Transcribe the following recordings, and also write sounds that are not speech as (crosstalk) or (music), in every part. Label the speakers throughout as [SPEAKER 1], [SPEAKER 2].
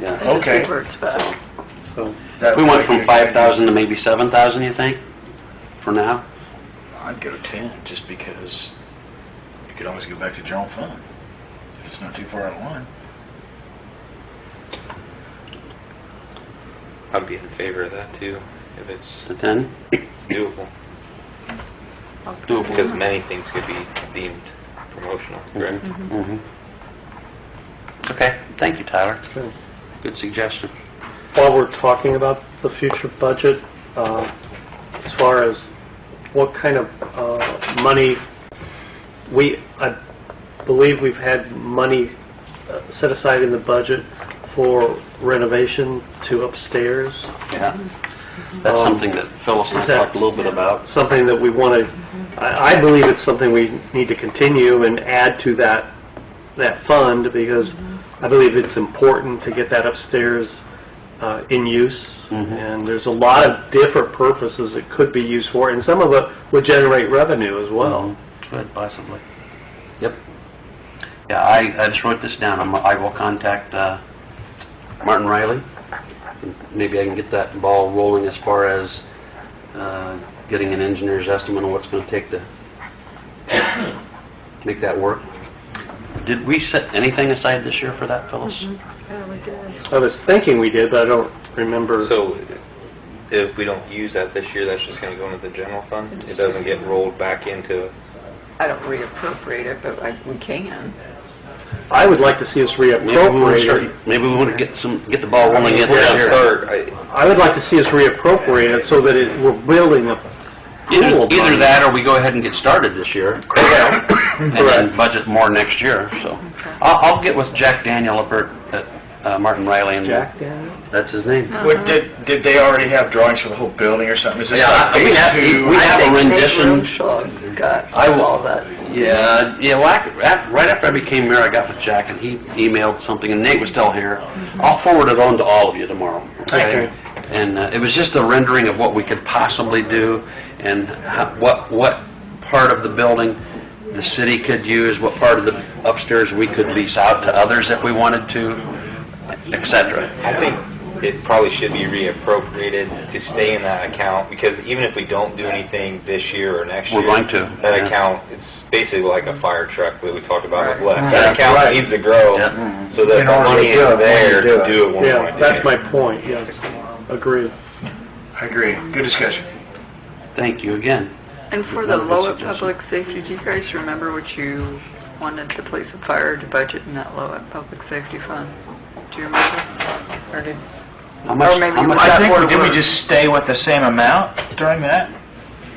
[SPEAKER 1] Yeah.
[SPEAKER 2] And
[SPEAKER 3] Okay.
[SPEAKER 2] It reverts back.
[SPEAKER 3] So
[SPEAKER 1] We went from five thousand to maybe seven thousand, you think, for now?
[SPEAKER 3] I'd go ten, just because you could always go back to general fund, if it's not too far out of line.
[SPEAKER 4] I'd be in favor of that too, if it's
[SPEAKER 1] To ten?
[SPEAKER 4] doable, because many things could be deemed promotional, correct?
[SPEAKER 1] Mhm. Mm-hmm. Okay, thank you, Tyler.
[SPEAKER 2] Okay.
[SPEAKER 1] Good suggestion.
[SPEAKER 2] While we're talking about the future budget, uh, as far as what kind of uh, money, we, I believe we've had money uh, set aside in the budget for renovation to upstairs.
[SPEAKER 1] Yeah. That's
[SPEAKER 2] Um,
[SPEAKER 1] something that Phyllis and I
[SPEAKER 2] is that-
[SPEAKER 1] talked a little bit about.
[SPEAKER 2] something that we want to, I, I believe it's something we need to continue and add to that, that fund, because I believe it's important to get that upstairs uh, in use,
[SPEAKER 1] Mhm.
[SPEAKER 2] and there's a lot of different purposes it could be used for, and some of it would generate revenue as well.
[SPEAKER 1] Could possibly. Yep. Yeah, I, I just wrote this down. I'm- I will contact uh, Martin Riley. Maybe I can get that ball rolling as far as uh, getting an engineer's estimate on what's going to take to make that work. Did we set anything aside this year for that, Phyllis?
[SPEAKER 5] Oh
[SPEAKER 2] I was thinking we did, but I don't remember.
[SPEAKER 4] So if we don't use that this year, that's just gonna go into the general fund? It doesn't get rolled back into,
[SPEAKER 5] I don't reappropriate it, but like, we can.
[SPEAKER 2] I would like to see us
[SPEAKER 1] Maybe we want to
[SPEAKER 2] reappropriate it.
[SPEAKER 1] start, maybe we want to get some, get the ball rolling
[SPEAKER 4] if
[SPEAKER 1] in
[SPEAKER 4] we're
[SPEAKER 1] this
[SPEAKER 4] gonna
[SPEAKER 1] year.
[SPEAKER 4] start, I-
[SPEAKER 2] I would like to see us reappropriate it so that it, we're building a
[SPEAKER 1] Either
[SPEAKER 2] pool. of
[SPEAKER 1] either
[SPEAKER 2] money.
[SPEAKER 1] that or we go ahead and get started this year.
[SPEAKER 6] (coughs)
[SPEAKER 1] And then budget more next year, so. I'll, I'll get with Jack Daniel up at, at uh, Martin Riley and.
[SPEAKER 2] Jack Daniel?
[SPEAKER 1] That's his name.
[SPEAKER 3] What, did, did they already have drawings for the whole building or something? Is this
[SPEAKER 1] Yeah,
[SPEAKER 3] like
[SPEAKER 1] I- we
[SPEAKER 3] phase
[SPEAKER 1] have-
[SPEAKER 3] two?
[SPEAKER 1] we
[SPEAKER 3] I
[SPEAKER 1] have a
[SPEAKER 3] think
[SPEAKER 1] ren-
[SPEAKER 3] they-
[SPEAKER 1] Condition.
[SPEAKER 5] Nate Roomshaw got
[SPEAKER 1] I will-
[SPEAKER 5] all that.
[SPEAKER 1] Yeah, yeah, well, I- af- right after I became mayor, I got with Jack and he emailed something and Nate was still here. I'll forward it on to all of you tomorrow.
[SPEAKER 2] Okay.
[SPEAKER 1] And uh, it was just a rendering of what we could possibly do and how- what, what part of the building the city could use, what part of the upstairs we could lease out to others if we wanted to, et cetera.
[SPEAKER 4] I think it probably should be reappropriated to stay in that account, because even if we don't do anything this year or next year...
[SPEAKER 1] We're going to,
[SPEAKER 4] That
[SPEAKER 1] yeah.
[SPEAKER 4] account, it's basically like a fire truck that we talked about with
[SPEAKER 1] Right.
[SPEAKER 4] Les. That
[SPEAKER 1] Right.
[SPEAKER 4] account needs to grow,
[SPEAKER 1] Yep.
[SPEAKER 4] so that the
[SPEAKER 3] In order to
[SPEAKER 4] money
[SPEAKER 3] do it,
[SPEAKER 4] is
[SPEAKER 3] when you
[SPEAKER 4] there
[SPEAKER 3] do
[SPEAKER 4] to
[SPEAKER 3] it.
[SPEAKER 4] do it when we want
[SPEAKER 2] Yeah,
[SPEAKER 4] to do it.
[SPEAKER 2] that's my point, yes. Agreed.
[SPEAKER 3] I agree, good discussion.
[SPEAKER 1] Thank you again.
[SPEAKER 5] And for the
[SPEAKER 1] Another
[SPEAKER 5] Lowell
[SPEAKER 1] suggestion.
[SPEAKER 5] Public Safety, do you guys remember what you wanted the police and fire to budget in that Lowell Public Safety Fund? Do you remember? Or did,
[SPEAKER 1] How much,
[SPEAKER 5] maybe
[SPEAKER 1] how
[SPEAKER 5] you
[SPEAKER 1] much-
[SPEAKER 5] want
[SPEAKER 3] I
[SPEAKER 5] that
[SPEAKER 3] think,
[SPEAKER 5] board
[SPEAKER 3] did we
[SPEAKER 5] work?
[SPEAKER 3] just stay with the same amount during that?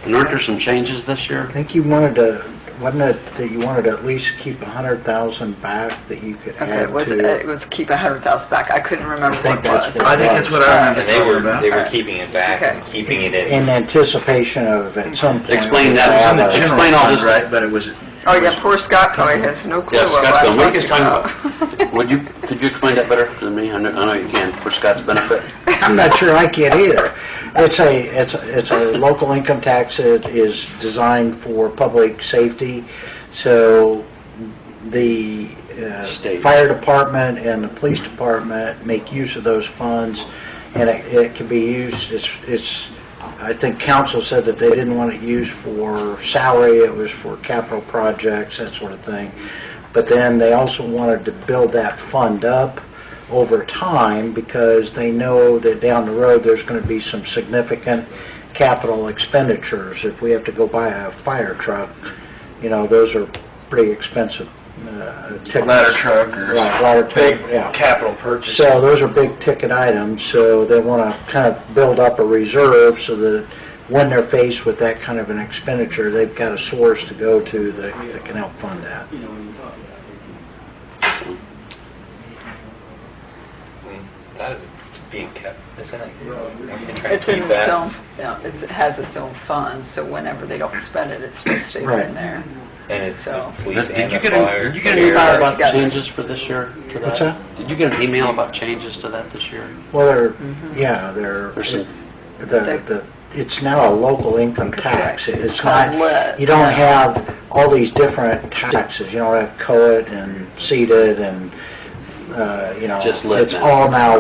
[SPEAKER 1] and aren't there some changes this year?
[SPEAKER 6] I think you wanted to, wasn't it that you wanted to at least keep a hundred thousand back that you could
[SPEAKER 5] okay,
[SPEAKER 6] add
[SPEAKER 5] it was, uh,
[SPEAKER 6] to?
[SPEAKER 5] it was keep a hundred thousand back. I couldn't remember
[SPEAKER 6] I
[SPEAKER 5] what
[SPEAKER 6] think
[SPEAKER 5] it was.
[SPEAKER 6] that's what it I think that's what I
[SPEAKER 4] And they were, they were
[SPEAKER 5] Alright.
[SPEAKER 4] keeping it back and keeping it in.
[SPEAKER 6] In anticipation of at some point.
[SPEAKER 1] Explain that.
[SPEAKER 6] we'll have
[SPEAKER 1] It's in the
[SPEAKER 6] a-
[SPEAKER 1] Explain all this.
[SPEAKER 3] Right, but it was,
[SPEAKER 5] Oh, yeah, poor Scott probably has no clue
[SPEAKER 1] Yeah,
[SPEAKER 5] what
[SPEAKER 1] Scott's been,
[SPEAKER 5] I'm
[SPEAKER 1] what are you
[SPEAKER 5] talking
[SPEAKER 1] talking
[SPEAKER 6] (laughs)
[SPEAKER 5] about.
[SPEAKER 1] about? (laughs) Would you, could you explain that better than me? I know, I know you can, for Scott's benefit.
[SPEAKER 6] I'm not sure I can either. It's a, it's, a- it's a local income tax that is designed for public safety, so the uh,
[SPEAKER 1] State.
[SPEAKER 6] fire department and the police department make use of those funds, and it, it can be used, it's, it's, I think council said that they didn't want it used for salary, it was for capital projects, that sort of thing. But then they also wanted to build that fund up over time because they know that down the road, there's going to be some significant capital expenditures. If we have to go buy a fire truck, you know, those are pretty expensive uh, tickets.
[SPEAKER 3] ladder truck or
[SPEAKER 6] Right, ladder
[SPEAKER 3] big
[SPEAKER 6] truck, yeah.
[SPEAKER 3] capital purchase.
[SPEAKER 6] So those are big ticket items, so they want to kind of build up a reserve so that when they're faced with that kind of an expenditure, they've got a source to go to that that can help fund that.
[SPEAKER 4] That is being kept, isn't it? We're trying to
[SPEAKER 5] It's in
[SPEAKER 4] keep
[SPEAKER 5] its
[SPEAKER 4] that.
[SPEAKER 5] own, yeah, it's- it has its own fund, so whenever they don't spend it, it just stays
[SPEAKER 6] Right.
[SPEAKER 5] in there.
[SPEAKER 4] And it's the
[SPEAKER 1] (laughs)
[SPEAKER 4] police
[SPEAKER 1] Did did
[SPEAKER 4] and
[SPEAKER 1] you
[SPEAKER 4] the
[SPEAKER 1] get, a-
[SPEAKER 4] fire.
[SPEAKER 1] did you get an email about
[SPEAKER 5] Yeah.
[SPEAKER 1] changes for this year? to
[SPEAKER 6] What's that?
[SPEAKER 1] Did you get an email about changes to that this year?
[SPEAKER 6] Well, they're, yeah, they're,
[SPEAKER 1] There's some-
[SPEAKER 6] the, the, it's now a local income tax. It's not,
[SPEAKER 5] Correct.
[SPEAKER 6] you don't have all these different taxes. You don't have COIT and CEDAT and uh, you know,
[SPEAKER 1] Just let
[SPEAKER 6] it's
[SPEAKER 1] them.
[SPEAKER 6] all now